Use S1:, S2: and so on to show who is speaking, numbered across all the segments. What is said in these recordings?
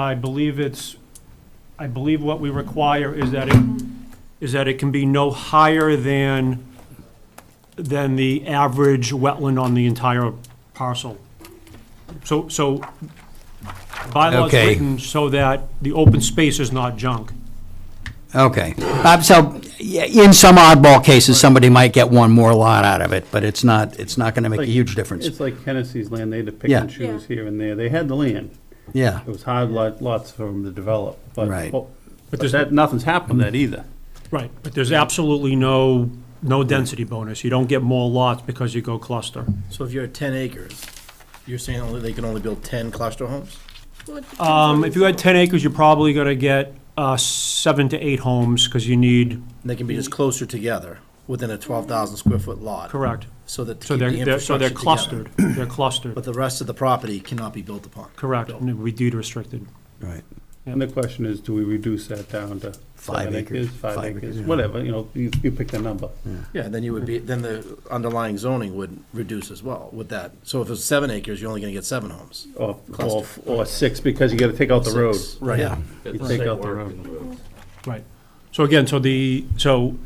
S1: I believe it's, I believe what we require is that it, is that it can be no higher than, than the average wetland on the entire parcel. So, so bylaw's
S2: Okay.
S1: written so that the open space is not junk.
S2: Okay. Bob, so, yeah, in some oddball cases, somebody might get one more lot out of it, but it's not, it's not gonna make a huge difference.
S3: It's like Hennessy's land, they had to pick
S2: Yeah.
S3: and choose here and there. They had the land.
S2: Yeah,
S3: It was hard lot, lots for them to develop, but,
S2: Right. Mm-hmm.
S3: but that, nothing's happened to that either.
S1: Right, but there's absolutely no, no density bonus. You don't get more lots because you go cluster.
S4: So if you're at ten acres, you're saying only they can only build ten cluster homes?
S1: Um, if you had ten acres, you're probably gonna get, uh, seven to eight homes, because you need,
S4: And they can be just closer together within a twelve thousand square foot lot.
S1: correct.
S4: So that to
S1: So
S4: keep the
S1: they're, they're, so
S4: infrastructure
S1: they're
S4: together.
S1: clustered, they're clustered,
S4: But the rest of the property cannot be built upon.
S1: correct, and we deed restricted.
S2: right.
S3: And the question is, do we reduce that down to
S2: Five
S3: seven
S2: acres,
S3: acres, five
S2: five acres,
S3: acres,
S2: yeah.
S3: whatever, you know, you, you pick the number.
S4: Yeah, then you would be, then the underlying zoning would reduce as well with that. So if it's seven acres, you're only gonna get seven homes.
S3: Or, or, or six, because you gotta take out the road.
S4: Six. Right.
S2: Yeah.
S3: You take out the road.
S1: Right. So again, so the, so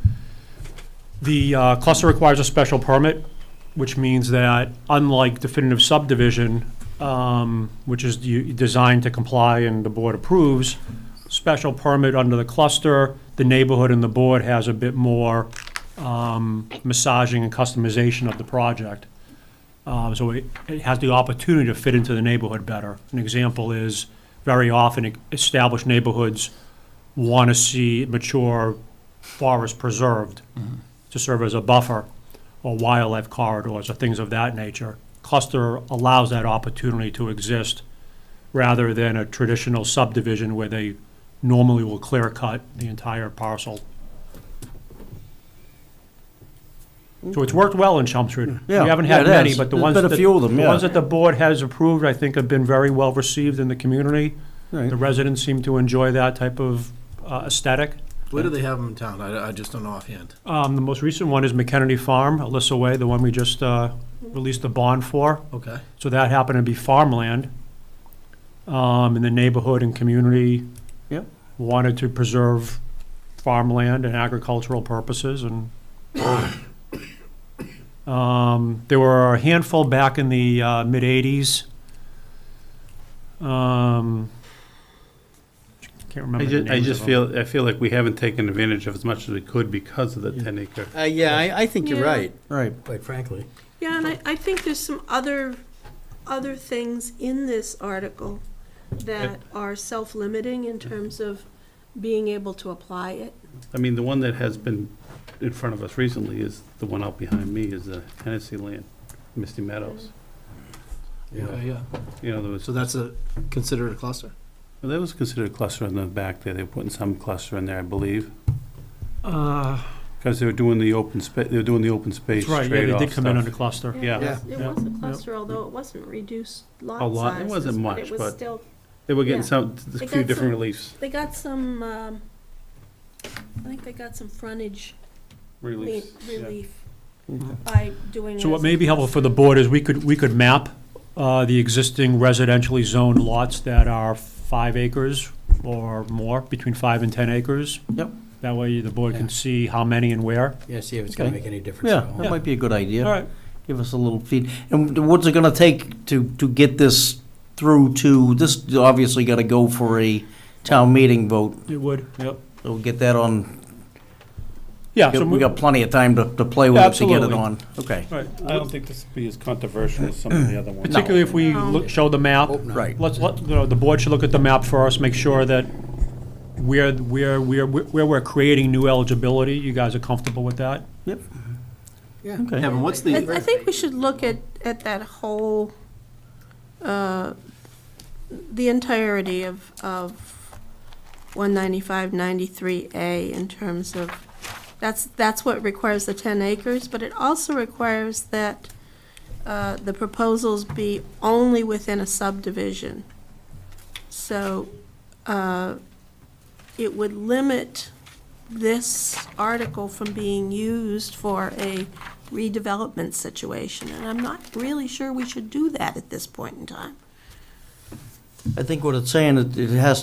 S1: the uh, cluster requires a special permit, which means that unlike definitive subdivision, um, which is you- designed to comply and the board approves, special permit under the cluster, the neighborhood and the board has a bit more um, massaging and customization of the project. Um, So it it has the opportunity to fit into the neighborhood better. An example is, very often, e, established neighborhoods want to see mature forest preserved to serve as a buffer or wildlife corridors or things of that nature. Cluster allows that opportunity to exist rather than a traditional subdivision where they normally will clear cut the entire parcel. So it's worked well in Chelmsford. We
S5: Yeah,
S1: haven't
S5: yeah,
S1: had
S5: it
S1: many,
S5: has.
S1: but the
S5: There's
S1: ones
S5: been a
S1: that-
S5: few of them,
S1: The
S5: yeah.
S1: ones that the board has approved, I think, have been very well received in the community.
S5: Right.
S1: The residents seem to enjoy that type of uh, aesthetic.
S4: Where do they have them in town? I, I just don't know offhand.
S1: Um, The most recent one is McKennedy Farm, Alyssa Way, the one we just uh, released the bond for.
S4: Okay.
S1: So that happened to be farmland. Um, And the neighborhood and community
S5: Yep.
S1: wanted to preserve farmland and agricultural purposes and um, there were a handful back in the uh, mid-'80s. Um, Can't remember
S3: I
S1: the
S3: just, I
S1: names
S3: just
S1: of them.
S3: feel, I feel like we haven't taken advantage of as much as we could because of the ten acre.
S4: Uh, yeah, I, I think
S6: you're Yeah. right,
S5: Right.
S4: quite frankly.
S6: Yeah, and I, I think there's some other, other things in this article that are self-limiting in terms of being able to apply it.
S3: I mean, the one that has been in front of us recently is, the one out behind me is the Hennessy land, Misty Meadows. You know,
S4: Yeah.
S3: you know, there was
S4: So that's a, considered a cluster?
S3: Well, that was considered a cluster in the back there. They were putting some cluster in there, I believe,
S1: Uh,
S3: because they were doing the open space, they were doing the open space
S1: That's right, yeah, they
S3: trade-off
S1: did come in under
S3: stuff.
S1: cluster.
S3: Yeah.
S6: It was-
S1: Yeah.
S6: It was a
S1: Yeah.
S6: cluster, although it wasn't reduced lot
S3: A lot- it
S6: sizes,
S3: wasn't
S6: but
S3: much,
S6: it was
S3: but-
S6: still,
S3: They were getting
S6: Yeah.
S3: some, a
S6: They
S3: few
S6: got
S3: different
S6: some-
S3: reliefs.
S6: they got some, um, I think they got some frontage le-
S3: Reliefs. yeah.
S6: relief by doing it
S1: So
S6: as
S1: what
S6: a
S1: may be helpful for the board is we could, we could map uh, the existing residentially zoned lots that are five acres or more, between five and 10 acres.
S5: Yep.
S1: That way the board can see how many and where.
S7: Yeah, see if it's gonna
S5: Okay.
S7: make any difference
S5: Yeah,
S7: at all.
S5: that might be a good idea.
S1: All right.
S5: Give us a little feed. And what's it gonna take to, to get this through to, this obviously gotta go for a town meeting vote.
S1: It would, yep.
S5: We'll get that on,
S1: Yeah. so
S5: we got plenty of time to, to play with it to get it
S1: Absolutely.
S5: on. Okay,
S1: all right.
S3: I don't think this would be as controversial as some of the other ones.
S1: Particularly if we
S6: No.
S1: look- show the map.
S5: right.
S1: Let's, let, you know, the board should look at the map first, make sure that where, where, where, where we're creating new eligibility, you guys are comfortable with that?
S5: Okay.
S4: Kevin, what's
S6: I, I
S4: the,
S6: think we should look at, at that whole, uh, the entirety of, of one ninety-five, ninety-three A in terms of, that's, that's what requires the ten acres, but it also requires that, uh, the proposals be only within a subdivision. So, uh, it would limit this article from being used for a redevelopment situation, and I'm not really sure we should do that at this point in time.
S5: I think what it's saying, it it has to